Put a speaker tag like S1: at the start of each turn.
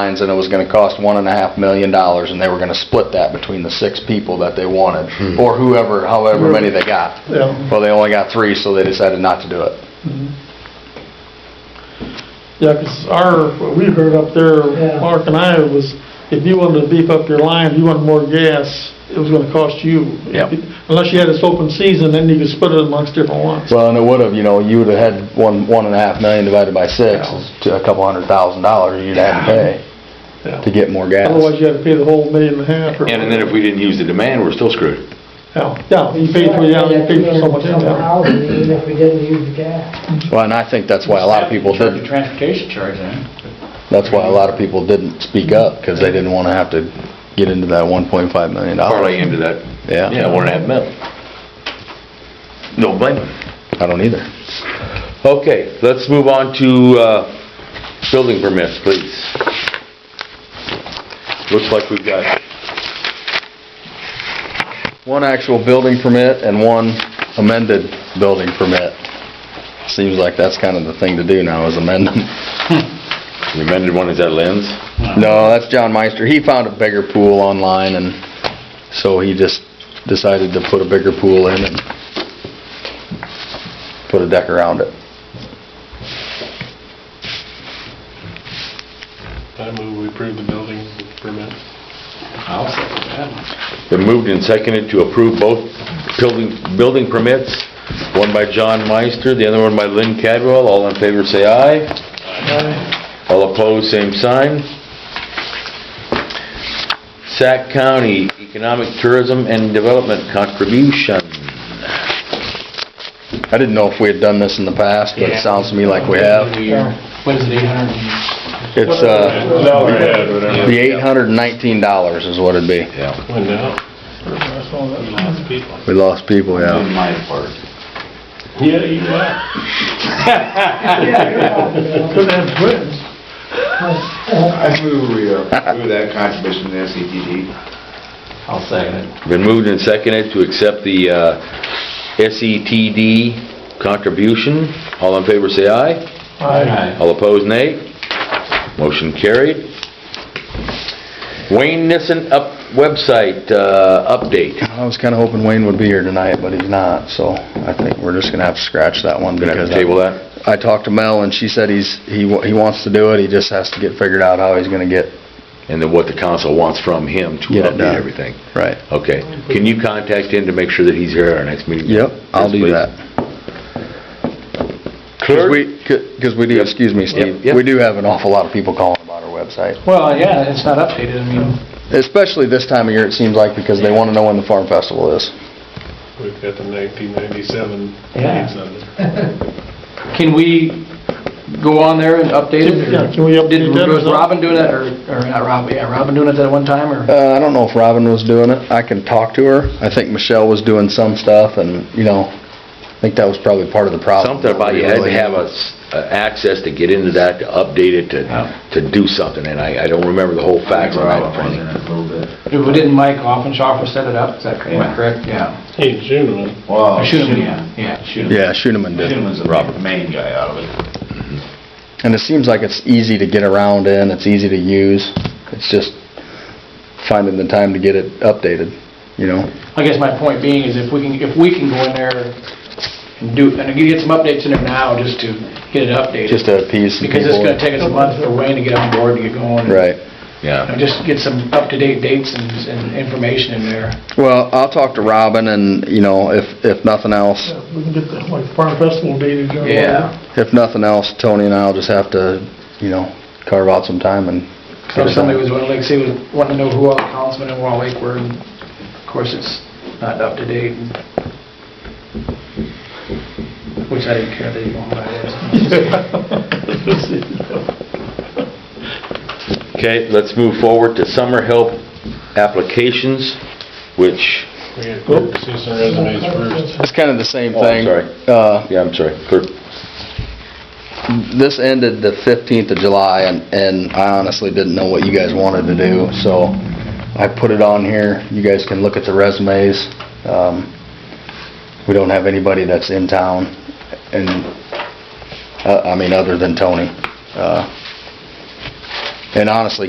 S1: lines, and it was gonna cost one and a half million dollars, and they were gonna split that between the six people that they wanted, or whoever, however many they got.
S2: Yeah.
S1: Well, they only got three, so they decided not to do it.
S2: Yeah, 'cause our, what we heard up there,
S3: Yeah.
S2: Mark and I, was if you wanted to beef up your line, if you wanted more gas, it was gonna cost you.
S1: Yep.
S2: Unless you had this open season, then you could split it amongst different ones.
S1: Well, and it would've, you know, you would've had one, one and a half million divided by six, is to a couple hundred thousand dollars you'd have to pay
S2: Yeah.
S1: to get more gas.
S2: Otherwise, you had to pay the whole million and a half. or-
S4: And then if we didn't use the demand, we're still screwed.
S2: Yeah, yeah, you paid for, yeah, you paid for so much. yeah.
S3: Somehow, even if we didn't use the gas.
S1: Well, and I think that's why a lot of people
S5: Charge the
S1: didn't,
S5: transportation charge eh? then.
S1: that's why a lot of people didn't speak up, because they didn't wanna have to get into that one point five million
S4: Parlay
S1: dollars.
S4: into that,
S1: Yeah.
S4: yeah, one and a half mil. No blame them.
S1: I don't either.
S4: Okay, let's move on to, uh, building permits, please. Looks like we've got,
S1: One actual building permit and one amended building permit. Seems like that's kind of the thing to do now, is amend them.
S4: the amended one is that Lynn's?
S1: No, that's John Meister. He found a bigger pool online, and so he just decided to put a bigger pool in and put a deck around it.
S6: I move we approve the building permit.
S5: I'll second that.
S4: Been moved and seconded to approve both building, building permits, one by John Meister, the other one by Lynn Cadwell. All in favor, say aye. All opposed, same sign. Sac County Economic Tourism and Development Contribution.
S1: I didn't know if we had done this in the past, but it
S5: Yeah.
S1: sounds to me like we have.
S5: We are- What is it, eight hundred and,
S1: It's, uh,
S2: Oh,
S6: No, we had, whatever.
S1: the eight hundred and nineteen dollars is what it'd be.
S4: Yeah.
S6: Went out,
S2: I saw that.
S6: we lost people.
S1: We lost people,
S5: in
S1: yeah.
S5: my part.
S6: Yeah, you left.
S2: Could have twins.
S7: I move we uh, approve that contribution to the SCTG.
S5: I'll second it.
S4: Been moved and seconded to accept the uh, SETD contribution. All in favor, say aye.
S5: Aye.
S4: All opposed, nay. Motion carried. Wayne Nissen up, website, uh, update.
S1: I was kinda hoping Wayne would be here tonight, but he's not, so I think we're just gonna have to scratch that one
S4: Gonna have
S1: because.
S4: to table that?
S1: I talked to Mel and she said he's, he, wa- he wants to do it, he just has to get figured out how he's gonna get,
S4: And then what the council wants from him to
S1: Get it done.
S4: update everything.
S1: right.
S4: Okay. Can you contact him to make sure that he's here at our next meeting?
S1: Yep, I'll
S4: Yes,
S1: do
S4: please.
S1: that. Because
S4: Clerk?
S1: we, because we do, excuse me, Steve,
S4: yep.
S1: we do have an awful lot of people calling about our website.
S5: Well, yeah, it's not updated, I mean,
S1: Especially this time of year, it seems like, because they want to know when the farm festival is.
S6: We've got the 1997
S5: Yeah.
S6: leaves on there.
S5: can we go on there and update it? or-
S2: Yeah, can we update
S5: Did-
S2: that or
S5: Was
S2: something?
S5: Robin doing it, or, or not Robin, yeah, Robin doing it that one time, or?
S1: Uh, I don't know if Robin was doing it. I can talk to her. I think Michelle was doing some stuff and, you know, I think that was probably part of the problem.
S4: Something about you had to
S1: Oh, Really.
S4: have a s- uh, access to get into that, to update it, to,
S5: Yeah.
S4: to do something, and I, I don't remember the whole facts on that.
S7: in
S4: front.
S7: it a little bit.
S5: Didn't Mike Offenshofer set it up, is that
S7: Yeah.
S5: correct? Yeah.
S6: Hey, June,
S7: Well,
S5: Or shoot 'em, yeah, yeah.
S7: Schuneman.
S1: Yeah, Schooneman did.
S7: Schuneman's the main guy out of it.
S1: And it seems like it's easy to get around in, it's easy to use. It's just finding the time to get it updated, you know?
S5: I guess my point being is if we can, if we can go in there and do, and get some updates in there now just to get it updated.
S1: Just to appease some people.
S5: Because it's gonna take us a month for Wayne to get on board to get going.
S1: Right.
S4: Yeah.
S5: And Just get some up-to-date dates and, and information in there.
S1: Well, I'll talk to Robin and, you know, if, if nothing else,
S2: Yeah, We can get that, like, farm festival dated. or
S1: if nothing else, Tony and I'll just have to, you know, carve out some time and.
S5: So if somebody was, wanting, like, say, was wanting to know who all the councilmen in Wall Lake were, and of course, it's not up-to-date. and- Which I didn't care that you wanted that.
S4: Okay, let's move forward to summer help applications, which,
S6: we had clerk see some resumes first.
S1: It's kind of the same
S4: Oh, I'm
S1: thing.
S4: sorry.
S1: Uh,
S4: yeah, I'm sorry, clerk,
S1: this ended the 15th of July, and, and I honestly didn't know what you guys wanted to do, so I put it on here. You guys can look at the resumes. Um, We don't have anybody that's in town, and, uh, I mean, other than Tony. Uh, And honestly,